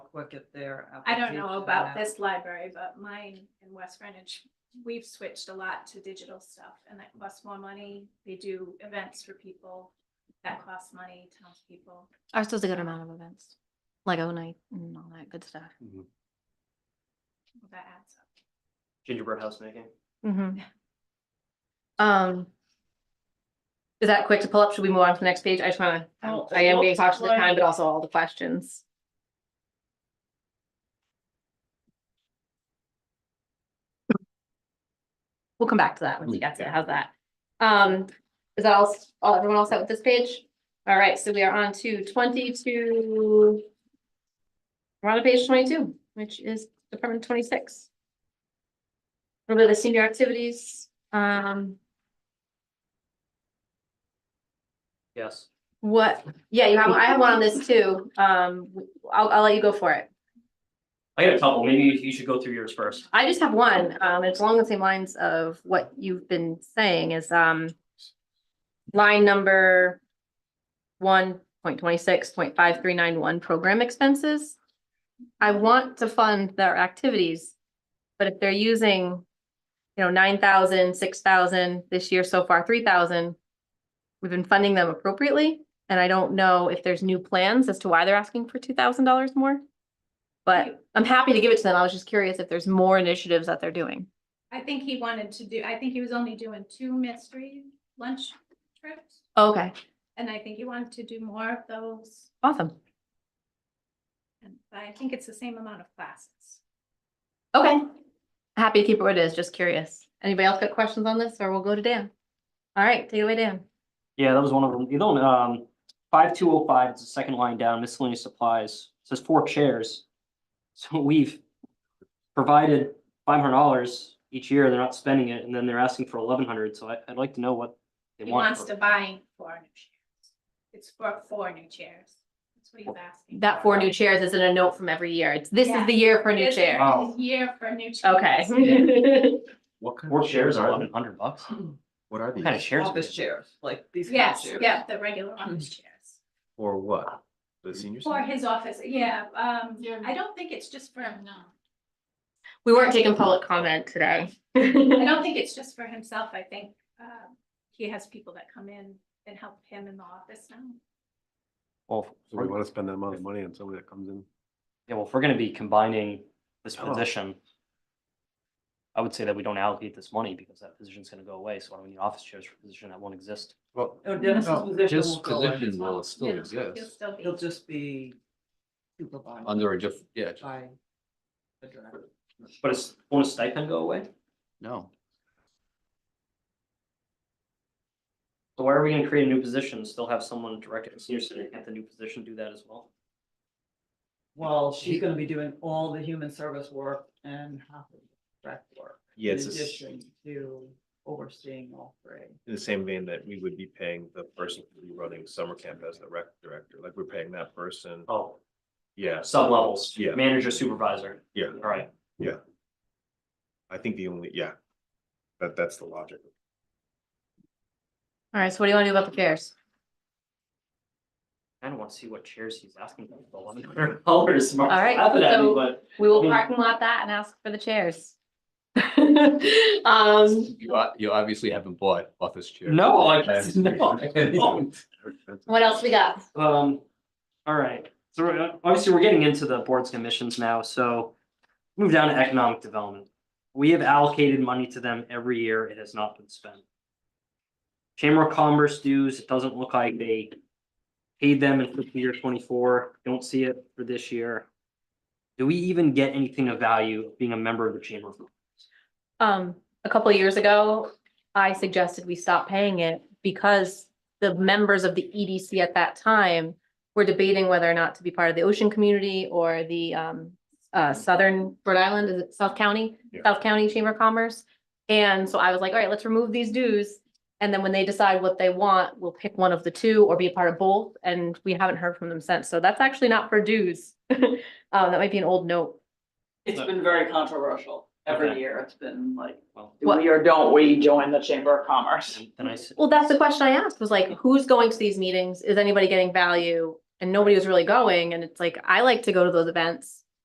look at their. I don't know application about app. this library, but mine in West Greenwich, we've switched a lot to digital stuff and that costs more money. They do events for people. That costs money, townspeople. Ours does a good amount of events, like O night and all that good stuff. That adds up. gingerbread house making. Mm-hmm. Um. Is that quick to pull up? Should we move on to the next page? I just wanna, I'm- Oh, I am being looks cautious of like- time, but also all the questions. We'll come back to that when we get to it. How's that? Um, is that all, s- all, everyone all set with this page? All right, so we are on to twenty-two. We're on to page twenty-two, which is Department twenty-six. A little bit of the senior activities, um, Yes. what, yeah, you have, I have one on this too, um, I'll, I'll let you go for it. I got a couple. Maybe you should go through yours first. I just have one, um, it's along the same lines of what you've been saying is, um, line number one point twenty-six point five three nine one, program expenses. I want to fund their activities, but if they're using, you know, nine thousand, six thousand, this year so far, three thousand, we've been funding them appropriately, and I don't know if there's new plans as to why they're asking for two thousand dollars more. But I'm happy to give it to them. I was just curious if there's more initiatives that they're doing. I think he wanted to do, I think he was only doing two mystery lunch trips. Okay, And I think he wanted to do more of those. awesome. And but I think it's the same amount of classes. Okay. Happy to keep it where it is, just curious. Anybody else got questions on this or we'll go to Dan? All right, take it away, Dan. Yeah, that was one of them. The other one, um, five two oh five, it's the second line down, miscellaneous supplies, It says four chairs. So we've provided five hundred dollars each year, they're not spending it, and then they're asking for eleven hundred, so I, I'd like to know what they He want. wants to buy four new chairs. It's for four new chairs. That's what he's asking. That four new chairs isn't a note from every year. It's, this is the year for a new This is chair. Oh. the Year for new chairs. Okay. What kind Four of chairs chairs are are eleven they? hundred bucks? What are What kind of these? chairs? are Office these? chairs, like these. kind of Yes, chairs. yeah, the regular office Hmm. chairs. For what? The seniors? For his office, yeah, um, Yeah. I don't think it's just for him, no. We weren't taking public comment today. I don't think it's just for himself, I think, um, he has people that come in and help him in the office now. Well, So we want to spend that amount of money on somebody that comes in. yeah, well, if we're gonna be combining this Oh. position. I would say that we don't allocate this money because that position's gonna go away, so why do we need office chairs for a position that won't exist? Well, No, Oh, Dennis's no, position his will go away. position will still Yeah, He'll exist still be. He'll just be supervised under a different, yeah, just- by the director. But it's, won't a stipend go away? no. So why are we gonna create a new position, and still have someone directed at senior center, can't the new position do that as well? Well, she's gonna be doing all the human service work and half of the direct work. Yeah, In it's the s- addition to overseeing all three. in the same vein that we would be paying the person who'd be running summer camp as the rec director, like we're paying that person, Oh, yeah, sub levels, Yeah. manager, supervisor, yeah, all right, I think the only, yeah. That, that's the logic. All right, so what do you want to do about the chairs? I don't wanna see what chairs he's asking for, eleven hundred dollars. All right, so- But We will Hmm. parking lot that and ask for the chairs. Um, You, o- you obviously haven't bought office chairs. No, like, no, Oh, I don't. what else we got? Um, all right, so uh, obviously we're getting into the boards and commissions now, so move down to economic development. We have allocated money to them every year, it has not been spent. Chamber of Commerce dues, it doesn't look like they paid them in fiscal year twenty-four, don't see it for this year. Do we even get anything of value of being a member of the Chamber of? Commerce? Um, a couple of years ago, I suggested we stop paying it because the members of the EDC at that time were debating whether or not to be part of the ocean community or the um uh southern Rhode Island, is it South County? Yeah. South County Chamber of Commerce. And so I was like, all right, let's remove these dues. And then when they decide what they want, we'll pick one of the two or be a part of both. And we haven't heard from them since. So that's actually not for dues. Uh, that might be an old note. It's been very controversial. Every Okay. year, it's been like, Well, do we or don't we join the Chamber of Commerce? then- Then I said, Well, that's the question I asked was like, who's going to these meetings? Is anybody getting value? and nobody was really going. And it's like, I like to go to those events.